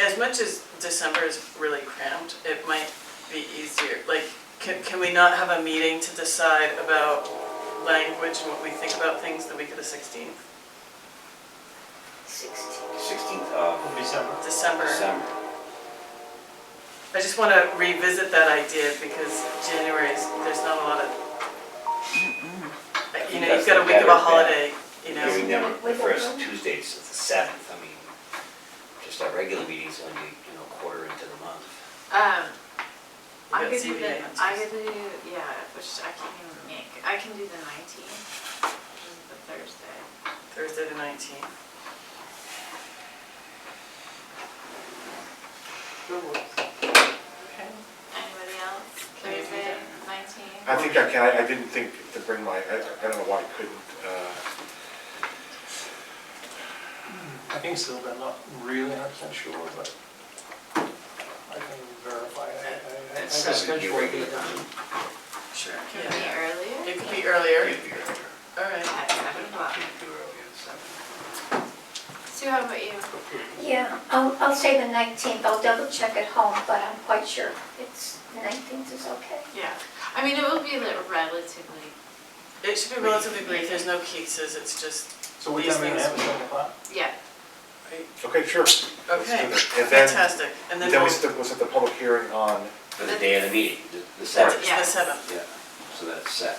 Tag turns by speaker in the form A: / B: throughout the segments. A: as much as December is really cramped, it might be easier, like, can, can we not have a meeting to decide about language and what we think about things the week of the sixteenth,
B: Sixteen.
C: Sixteenth of
D: December.
A: December?
C: December.
A: I just wanna revisit that idea because January is, there's not a lot of. Like, You know, you've got a week of a holiday, you know,
C: Hearing them, the
B: Wiggle
C: first
B: room.
C: Tuesday's the seventh, I mean, just our regular meetings only, you know, quarter into the month.
E: Um,
A: We've got
E: I could do the,
A: ZBA
E: I
A: answers.
E: could do, yeah, which I can't even make, I can do the nineteenth, which is the Thursday.
A: Thursday the nineteenth. Okay.
E: Anybody else?
A: Can you do
E: Thursday,
A: that?
E: nineteenth?
F: I think I can, I I didn't think to bring my, I I don't know why I couldn't. uh,
D: I think so, but I'm not really hundred percent sure, but I can verify. I- I- I have a
C: Seven, your
D: schedule
C: regular
D: here.
C: time.
A: Sure,
E: Can
A: yeah.
E: we earlier?
A: It could be earlier,
C: Can't be earlier.
A: all right.
E: At seven o'clock.
C: Can't do earlier than seven.
E: Sue, how about you?
B: Yeah, I'll, I'll say the nineteenth, I'll double check at home, but I'm quite sure it's, nineteenth is okay.
E: Yeah, I mean, it will be li- relatively,
A: It should be relatively brief, there's no cases, it's just,
D: So what
A: These
D: time are you gonna
A: things-
D: have, seven o'clock?
E: yeah,
F: uh, Okay, sure. Let's do
A: okay,
F: that. And then,
A: fantastic. And then
F: then
A: we'll,
F: we
A: it's
F: set- we'll set the public hearing on,
C: For the day of the meeting, the- the
A: the
C: seventh,
E: Yeah. Yes.
A: seventh,
C: yeah, so that's set.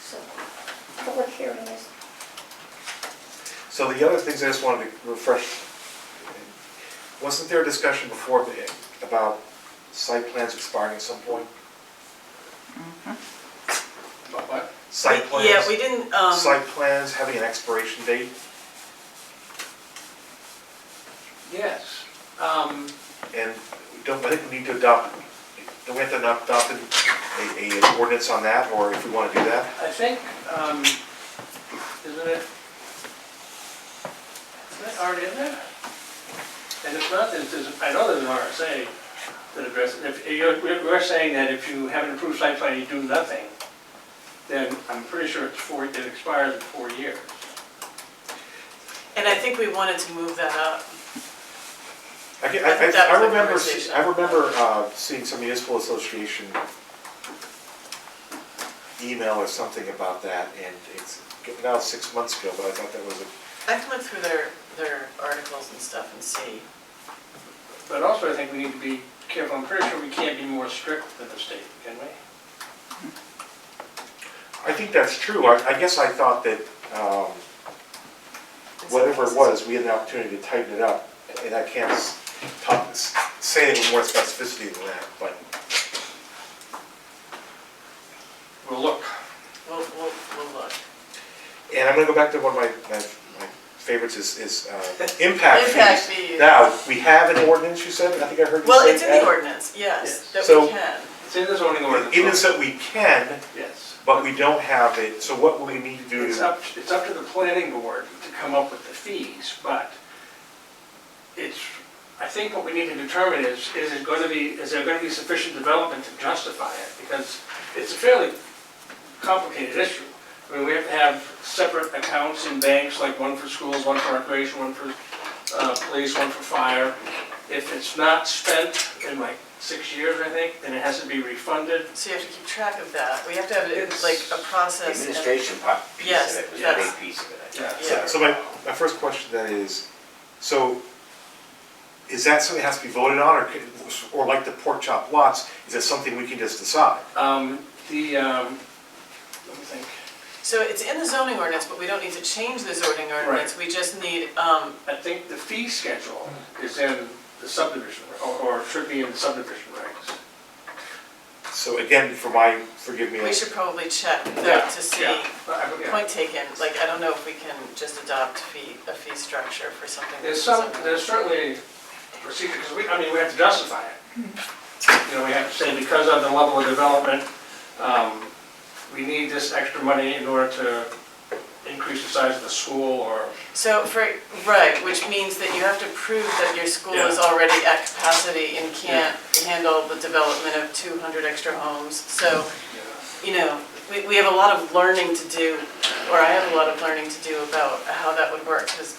B: So, public hearing is,
F: so the other things I just wanted to refresh. Wasn't there a discussion before the- about site plans expiring at some point?
G: But what?
F: Site
A: We- Yeah, we
F: plans,
A: didn't, um,
F: site plans having an expiration date?
G: Yes. Um,
F: And we don't, I think we need to adopt, do we have to adopt an, a, a ordinance on that, or if we wanna do that?
G: I think, um, isn't it? Isn't it already in there? And if not, then there's, I know there's an RSA that addresses, if you're, we're saying that if you have an approved site plan, you do nothing, then I'm pretty sure it's four, it expires in four years.
A: and I think we wanted to move that up.
F: I, can-
A: I
F: I,
A: think that
F: I-
A: was
F: I
A: the
F: remember,
A: conversation.
F: I remember uh, seeing some municipal association email or something about that, and it's, now it's six months ago, but I thought that was, a-
A: I can look through their, their articles and stuff and see.
G: But also, I think we need to be careful, I'm pretty sure we can't be more strict than the state, can we?
F: I think that's true, I, I guess I thought that, um,
A: in some
F: whatever
A: cases.
F: it was, we had an opportunity to tighten it up, and I can't s- talk, s- say it with more specificity than that, but
G: Well, look,
A: We'll, we'll, we'll look.
F: And I'm gonna go back to one of my, my, my favorites is, is, uh, impact fees.
A: Impact fees.
F: Now, we have an ordinance, you said, I think I heard you say.
A: Well, it's in the
F: that.
A: ordinance, yes,
G: Yes.
A: that we
F: So-
A: can.
G: it's in the zoning ordinance.
F: It is that we can,
G: Yes.
F: but we don't have it, so what will we need to do?
G: It's
F: to-
G: up, it's up to the planning board to come up with the fees, but it's, I think what we need to determine is, is it going to be, is there going to be sufficient development to justify it? Because it's a fairly complicated issue. I mean, we have to have separate accounts in banks, like one for schools, one for recreation, one for uh, police, one for fire. If it's not spent in like six years, I think, then it has to be refunded.
A: So you have to keep track of that. We have to have it
G: It's-
A: like a process. and-
C: Administration part, piece
A: Yes,
C: of it was a
A: that's-
C: big piece of it, I think.
G: Yeah.
A: Yeah.
F: So my, my first question then is, so is that something that has to be voted on, or, could- or like the pork chop lots, is that something we can just decide?
G: Um, The, um, let me think.
A: So it's in the zoning ordinance, but we don't need to change the zoning ordinance. We just need, um,
G: I think the fee schedule is in the subdivision, or, or should be in the subdivision regs.
F: So again, for my, forgive me,
A: we should probably check
G: Yeah,
A: that to see.
G: yeah, I- yeah.
A: Point taken, like, I don't know if we can just adopt fee, a fee structure for something. that
G: There's some,
A: doesn't-
G: there's certainly procedure, because we, I mean, we have to justify it. You know, we have to say because of the level of development, um, we need this extra money in order to increase the size of the school or
A: So for, right, which means that you have to prove that your school is
G: Yeah.
A: already at capacity and can't handle the development of two hundred extra homes. So, you
G: you know.
A: know, we, we have a lot of learning to do, or I have a lot of learning to do about how that would work, because